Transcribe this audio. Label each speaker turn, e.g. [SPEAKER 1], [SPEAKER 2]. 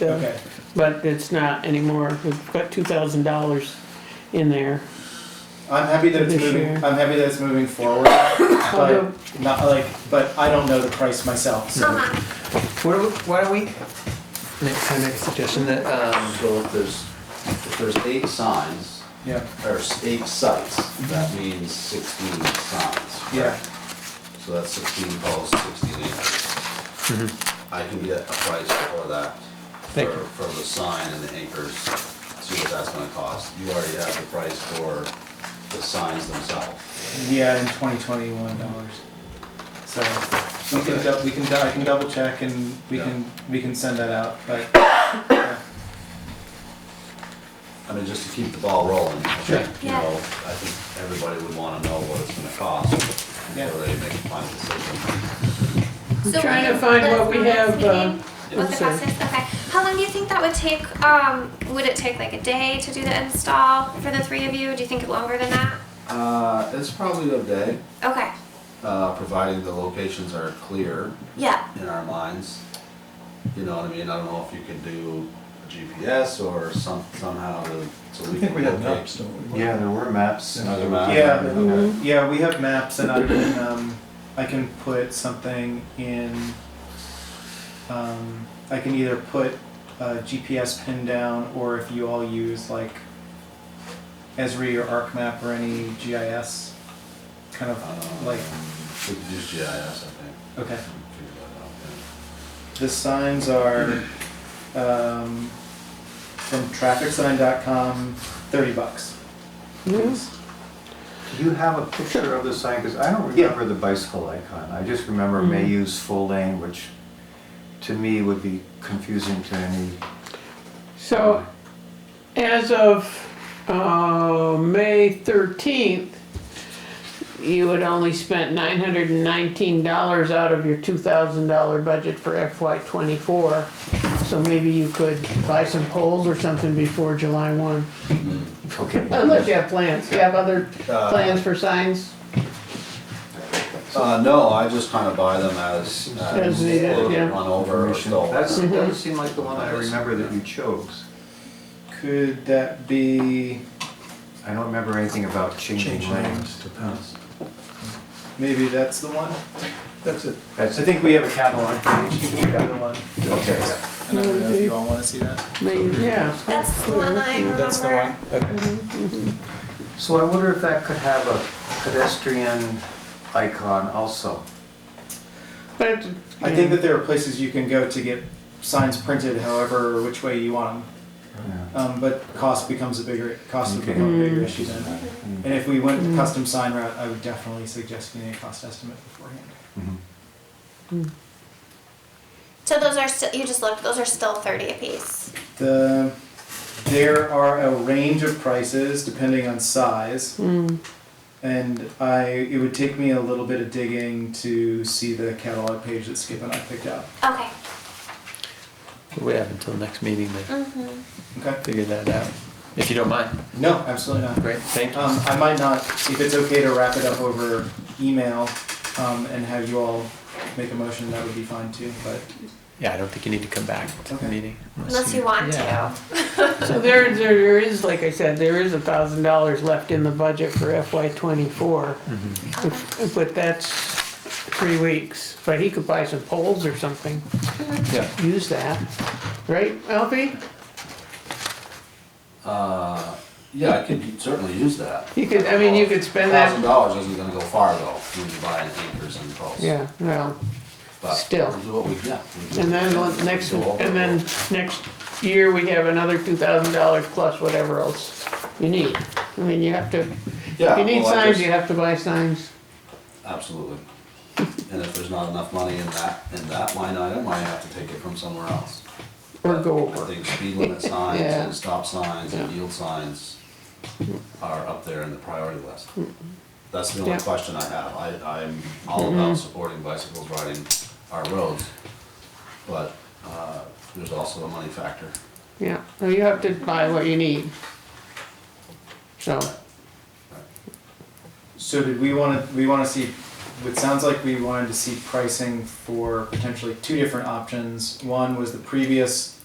[SPEAKER 1] uh,
[SPEAKER 2] Okay.
[SPEAKER 1] but it's not anymore. We've got two thousand dollars in there.
[SPEAKER 2] I'm happy that it's
[SPEAKER 1] This
[SPEAKER 2] moving.
[SPEAKER 1] year.
[SPEAKER 2] I'm happy that it's moving forward, but not like. But I don't know the price myself. So
[SPEAKER 3] Uh-huh.
[SPEAKER 4] What do we- Why don't we, next time, make a suggestion that, um,
[SPEAKER 5] So if there's, if there's eight signs,
[SPEAKER 2] yeah,
[SPEAKER 5] or s- eight sites, that means sixteen signs.
[SPEAKER 2] Mhm. yeah.
[SPEAKER 5] So that's sixteen calls, sixteen acres.
[SPEAKER 2] Mm-hmm.
[SPEAKER 5] I can get a price for that,
[SPEAKER 4] Thank
[SPEAKER 5] for,
[SPEAKER 4] you.
[SPEAKER 5] for the sign and the acres, see what that's gonna cost. You already have the price for the signs themselves.
[SPEAKER 2] Yeah, in twenty twenty one dollars. So we can dou- we can dou- I can double check and we
[SPEAKER 5] Yeah.
[SPEAKER 2] can we can send that out. But yeah.
[SPEAKER 5] I mean, just to keep the ball rolling, I
[SPEAKER 2] Sure.
[SPEAKER 5] think, you know, I think everybody would wanna know what it's gonna cost
[SPEAKER 2] Yeah.
[SPEAKER 5] before they make a final decision.
[SPEAKER 1] I'm trying to find what we have, uh,
[SPEAKER 3] What the cost is, okay. How long do you think that would take, um, would it take like a day to do the install for the three of you? Do you think longer than that?
[SPEAKER 5] Uh, it's probably a day,
[SPEAKER 3] Okay,
[SPEAKER 5] uh, providing the locations are clear.
[SPEAKER 3] yeah,
[SPEAKER 5] in our minds. You know what I mean? I don't know if you can do GPS or some, somehow to, so we can locate.
[SPEAKER 6] don't we? Yeah, there were maps. and
[SPEAKER 5] Another map.
[SPEAKER 2] Yeah.
[SPEAKER 6] Okay.
[SPEAKER 2] Yeah, we have maps, and I can um, I can put something in. Um, I can either put a GPS pin down, or if you all use like Esri or ArcMap or any GIS, kind of
[SPEAKER 5] Um,
[SPEAKER 2] like
[SPEAKER 5] We could use GIS, I
[SPEAKER 2] okay.
[SPEAKER 5] think. We can figure that out, yeah.
[SPEAKER 2] The signs are um, from trafficsign.com, thirty bucks.
[SPEAKER 1] Yes.
[SPEAKER 6] Do you have a picture of the sign? Because I don't
[SPEAKER 2] Yeah.
[SPEAKER 6] remember the bicycle icon. I just remember may use full lane, which to me would be confusing to any.
[SPEAKER 1] So, as of, uh, May thirteenth, you had only spent nine hundred and nineteen dollars out of your two thousand dollar budget for FY twenty-four. So maybe you could buy some poles or something before July one,
[SPEAKER 6] Okay.
[SPEAKER 1] unless you have plans, you have other plans for signs?
[SPEAKER 5] Uh, no, I just kind of buy them as, as
[SPEAKER 1] As needed,
[SPEAKER 5] they
[SPEAKER 1] yeah.
[SPEAKER 5] get run over or
[SPEAKER 6] Information.
[SPEAKER 5] stolen.
[SPEAKER 6] That's, that doesn't seem like the one that I remember that you chose.
[SPEAKER 2] Could that be?
[SPEAKER 6] I don't remember anything about changing lanes.
[SPEAKER 2] Maybe that's the one.
[SPEAKER 6] That's it.
[SPEAKER 2] I
[SPEAKER 6] That's it.
[SPEAKER 2] think we have a catalog page. We have the one.
[SPEAKER 6] Okay.
[SPEAKER 2] I don't know if you all want to see that.
[SPEAKER 1] Maybe, yeah.
[SPEAKER 3] that's the one I remember.
[SPEAKER 2] That's the one. Okay.
[SPEAKER 6] So I wonder if that could have a pedestrian icon also.
[SPEAKER 1] But,
[SPEAKER 2] I think that there are places you can go to get signs printed, however, or which way you want
[SPEAKER 6] Yeah.
[SPEAKER 2] them. Um, but cost becomes a bigger cost would
[SPEAKER 6] Okay.
[SPEAKER 2] become a bigger issue then. And if we went the custom sign route, I would definitely suggest getting a cost estimate beforehand.
[SPEAKER 6] Mhm.
[SPEAKER 3] So those are still, you just looked, those are still thirty apiece.
[SPEAKER 2] The there are a range of prices depending on size.
[SPEAKER 1] mm,
[SPEAKER 2] And I, it would take me a little bit of digging to see the catalog page that Skip and I picked out.
[SPEAKER 3] Okay.
[SPEAKER 4] We have until next meeting to
[SPEAKER 3] Mm-hmm.
[SPEAKER 2] Okay.
[SPEAKER 4] figure that out, if you don't mind.
[SPEAKER 2] No, absolutely not.
[SPEAKER 4] Great, thank you.
[SPEAKER 2] Um, I might not, if it's okay to wrap it up over email, um, and have you all make a motion, that would be fine too, but.
[SPEAKER 4] Yeah, I don't think you need to come back to
[SPEAKER 2] Okay.
[SPEAKER 4] the meeting.
[SPEAKER 3] Unless you want to.
[SPEAKER 4] Yeah.
[SPEAKER 1] so there, there is, like I said, there is a thousand dollars left in the budget for FY twenty-four.
[SPEAKER 5] Mm-hmm.
[SPEAKER 1] If- But that's three weeks, but he could buy some poles or something,
[SPEAKER 4] Yeah.
[SPEAKER 1] use that, right, Alfie?
[SPEAKER 5] Uh, yeah, I could certainly use that.
[SPEAKER 1] You could, I mean, you could spend
[SPEAKER 5] Thousand
[SPEAKER 1] that,
[SPEAKER 5] dollars isn't gonna go far though, when you buy an acres and poles.
[SPEAKER 1] yeah, well,
[SPEAKER 5] But
[SPEAKER 1] still.
[SPEAKER 5] we'll do what we- yeah, we'll do
[SPEAKER 1] and
[SPEAKER 5] what we
[SPEAKER 1] then
[SPEAKER 5] can.
[SPEAKER 1] the next,
[SPEAKER 5] We'll go over
[SPEAKER 1] and
[SPEAKER 5] it.
[SPEAKER 1] then next year, we have another two thousand dollars plus whatever else you need. I mean, you have to, if
[SPEAKER 5] Yeah,
[SPEAKER 1] you need
[SPEAKER 5] well, I
[SPEAKER 1] signs,
[SPEAKER 5] just-
[SPEAKER 1] you have to buy signs.
[SPEAKER 5] Absolutely. And if there's not enough money in that, in that line item, I have to take it from somewhere else.
[SPEAKER 1] Or go
[SPEAKER 5] I
[SPEAKER 1] over.
[SPEAKER 5] think speed limit signs
[SPEAKER 1] Yeah.
[SPEAKER 5] and stop signs and
[SPEAKER 1] Yeah.
[SPEAKER 5] yield signs are up there in the priority list. That's the only
[SPEAKER 1] Yeah.
[SPEAKER 5] question I have. I, I'm all about supporting bicycles riding our roads. But, uh, there's also a money factor.
[SPEAKER 1] Yeah, so you have to buy what you need. So,
[SPEAKER 2] So did we wanna, we wanna see, it sounds like we wanted to see pricing for potentially two different options. One was the previous